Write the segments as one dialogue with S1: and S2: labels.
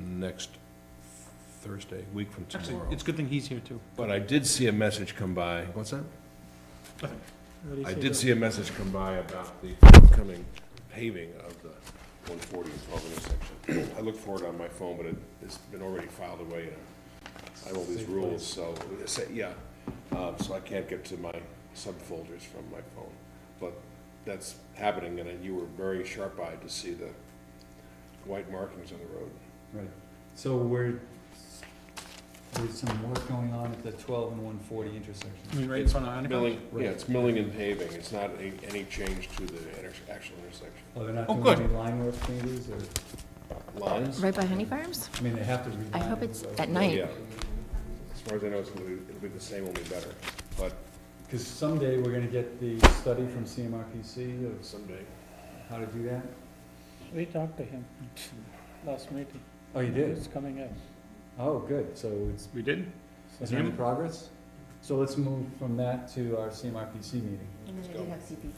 S1: next Thursday, week from
S2: Actually,
S1: tomorrow.
S2: it's a good thing he's here too.
S1: But I did see a message come by, what's that? I did see a message come by about the upcoming paving of the 140 and 12 intersection. I looked for it on my phone, but it, it's been already filed away, and I have all these rules, so, it's a- yeah. Um, So I can't get to my subfolders from my phone. But that's happening, and you were very sharp-eyed to see the white markings on the road.
S3: Right, so we're, there's some work going on at the twelve and one forty
S2: I
S3: intersection.
S2: mean, right in front of Honeycomb.
S1: Milling, yeah, it's milling and paving, it's not a- any change to the inter- actual intersection.
S3: Oh, they're not
S2: Oh,
S3: doing
S2: good.
S3: any line work changes, or,
S1: Lines?
S4: Right by Honey Farms?
S3: I mean, they have to reline.
S4: I hope it's
S3: it,
S4: at
S3: so-
S4: night.
S1: Yeah. As far as I know, it's gonna be, it'll be the same, only better, but
S3: Cause someday we're gonna get the study from CMRPC of
S1: someday.
S3: how to do that.
S5: We talked to him last meeting.
S3: Oh, you did?
S5: It's coming up.
S3: Oh, good, so it's,
S2: We did?
S3: is there any
S2: Him?
S3: progress? So let's move from that to our CMRPC meeting.
S4: And then
S1: they do have
S4: CP,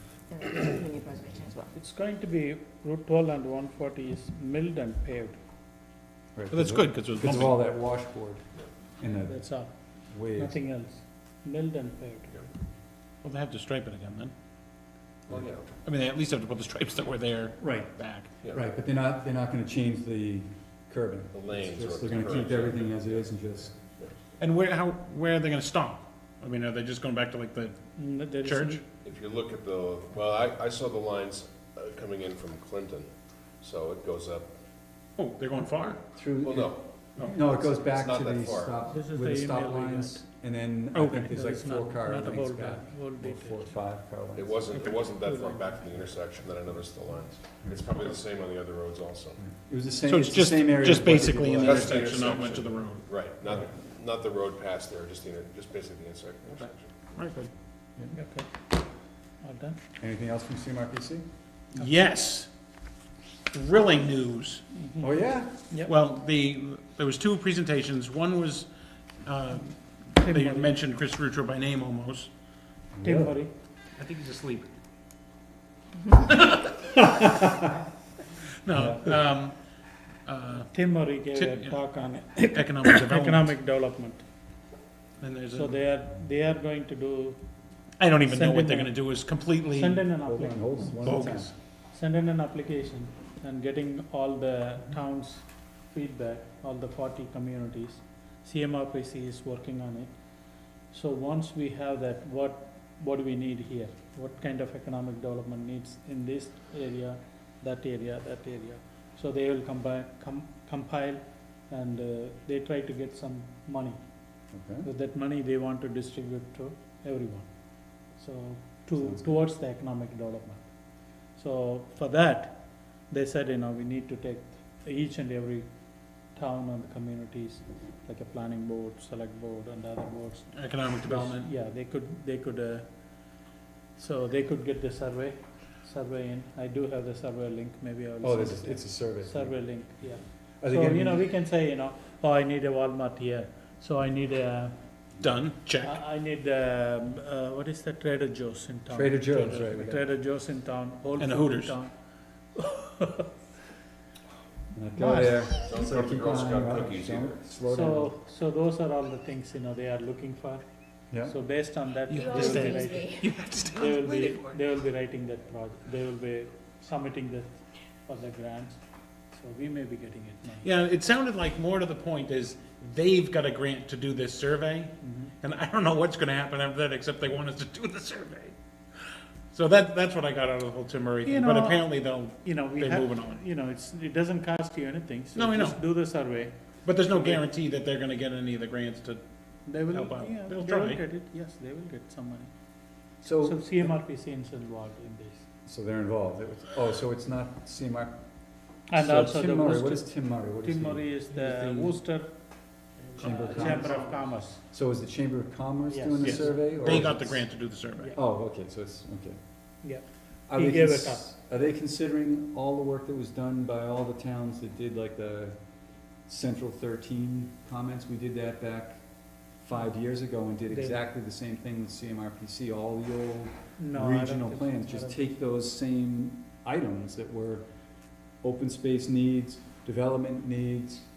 S4: and New Preservation as well.
S5: It's going to be Route twelve and one forty is milled and paved,
S3: Right,
S2: Well, that's
S3: because
S2: good, because it was
S3: Because of
S2: bumpy.
S3: all that washboard and the
S5: that's all,
S3: waves.
S5: nothing else, milled and paved.
S2: Well, they have to stripe it again then.
S1: Well, yeah.
S2: I mean, they at least have to put the stripes that were there
S3: Right,
S2: back.
S3: Right, but they're not, they're not gonna change the curbing.
S1: The lanes
S3: It's just
S1: or
S3: They're gonna keep
S1: curves.
S3: everything as it is and just,
S2: And where, how, where are they gonna stop? I mean, are they just going back to like the
S5: N- Mm, there is
S2: church?
S1: If you look at the, well, I, I saw the lines uh, coming in from Clinton, so it goes up,
S2: Oh, they're going far.
S1: well,
S3: through,
S1: no,
S3: no, it goes back
S1: not
S3: to
S1: that
S3: the
S1: far.
S3: stop,
S5: This
S3: with
S5: is
S3: the
S5: the
S3: stop
S5: email we
S3: lines, and then I
S2: Okay.
S3: think there's like
S5: There's
S3: four
S5: not,
S3: car
S5: not
S3: lengths
S5: about
S3: back.
S5: that, whole
S3: Or Four,
S5: detail.
S3: five car lengths.
S1: it wasn't, it wasn't that far back from the intersection that I noticed the lines. It's probably the same on the other roads also.
S3: It was the same,
S2: So it's
S3: it's the
S2: just,
S3: same area.
S2: just
S3: as what they did
S2: basically in the
S3: last-
S1: That's the
S2: intersection, not much of
S1: intersection.
S2: the road.
S1: Right, not, not the road past there, just the, inter- just basically the intersec- intersection.
S2: Right, good.
S5: Okay, all done.
S3: Anything else from CMRPC?
S5: Mm-hmm.
S2: Yes. Thrilling news.
S3: Oh, yeah?
S5: Yep.
S2: Well, the, there was two presentations. One was, uh, they
S5: Murray.
S2: mentioned Chris Rutro by name almost.
S5: Tim
S3: Really?
S5: Murray,
S2: I think he's asleep. No, um, uh,
S5: Tim Murray gave
S2: Tim, yeah.
S5: a talk on
S2: economic development,
S5: economic development,
S2: and there's
S5: so
S2: a,
S5: they are, they are going to do,
S2: I don't even know
S5: send
S2: what
S5: in
S2: they're
S5: a-
S2: gonna do, is completely
S5: send in an
S3: Hold on,
S5: application.
S3: hold on, one at a time.
S2: bogus.
S5: send in an application and getting all the towns' feedback, all the forty communities. CMRPC is working on it. So once we have that, what, what do we need here? What kind of economic development needs in this area, that area, that area? So they will combine, com- compile and uh, they try to get some money.
S3: Okay.
S5: With that money, they want to distribute to everyone. So to,
S3: Sounds good.
S5: towards the economic development. So for that, they said, you know, we need to take each and every town and communities, like a planning board, select board and other boards.
S2: Economic development,
S5: Yeah, they could, they could, uh, so they could get the survey, survey in. I do have the survey link, maybe I will.
S3: Oh,
S5: send
S3: this
S5: it
S3: is,
S5: to you.
S3: it's a survey.
S5: Survey link, yeah.
S3: Are they
S5: So,
S3: gonna
S5: you know,
S3: be-
S5: we can say, you know, oh, I need a Walmart here, so I need a,
S2: done, check.
S5: I I need, um, uh, what is the Trader Joe's in town?
S3: Trader Joe's, right, we got-
S5: Trader Joe's in town, Whole
S2: And
S5: Foods
S2: the
S5: in
S2: Hooters.
S5: town.
S3: Not Go there.
S1: Don't
S3: So
S1: go to the
S3: keep
S1: Girl
S3: an eye
S1: Scout
S3: out.
S1: cookies
S3: Don't-
S1: either.
S3: Slow down.
S5: So, so those are all the things, you know, they are looking for.
S3: Yeah.
S5: So based on that,
S2: You
S5: they will
S2: always
S5: be
S2: use
S5: writing,
S2: You have to stop.
S5: they will be,
S2: Waited for it.
S5: they will be writing that project, they will be submitting that for the grants, so we may be getting it now.
S2: Yeah, it sounded like more to the point is, they've got a grant to do this survey,
S5: Mm-hmm.
S2: and I don't know what's gonna happen after that, except they want us to do the survey. So that, that's what I got out of the whole Tim Murray
S5: You
S2: thing, but
S5: know,
S2: apparently they'll,
S5: You know, we
S2: They're
S5: have,
S2: moving on.
S5: you know, it's, it doesn't cost you anything,
S2: No,
S5: so
S2: I
S5: just
S2: know.
S5: do the survey.
S2: but there's no guarantee that they're gonna get any of the grants to,
S5: They will,
S2: Help out.
S5: yeah, they
S2: They'll
S5: will
S2: try.
S5: get it, yes, they will get some money.
S3: So.
S5: So CMRPC is involved in this.
S3: So they're involved. It was- Oh, so it's not CMAR.
S5: And
S3: so
S5: also the
S3: Tim Murray, what is
S5: Worcester,
S3: Tim Murray? What is
S5: Tim
S3: he?
S5: Murray is the
S2: the
S5: Worcester uh,
S3: Chamber of
S5: Chamber
S3: Commerce.
S5: of Commerce.
S3: So is the Chamber of Commerce
S5: Yes.
S3: doing the
S2: Yes.
S3: survey? or
S2: they
S3: is
S2: got the
S3: it-
S2: grant to do the survey.
S3: Oh, okay, so it's, okay.
S5: Yeah.
S3: Are
S5: He
S3: they
S5: gave
S3: cons-
S5: it up.
S3: Are they considering all the work that was done by all the towns that did like the Central thirteen comments? We did that back five years ago and did
S5: They-
S3: exactly the same thing with CMRPC, all the old
S5: No, I don't
S3: regional
S5: think-
S3: plans,
S5: I
S3: just
S5: don't-
S3: take those same items that were open space needs, development needs,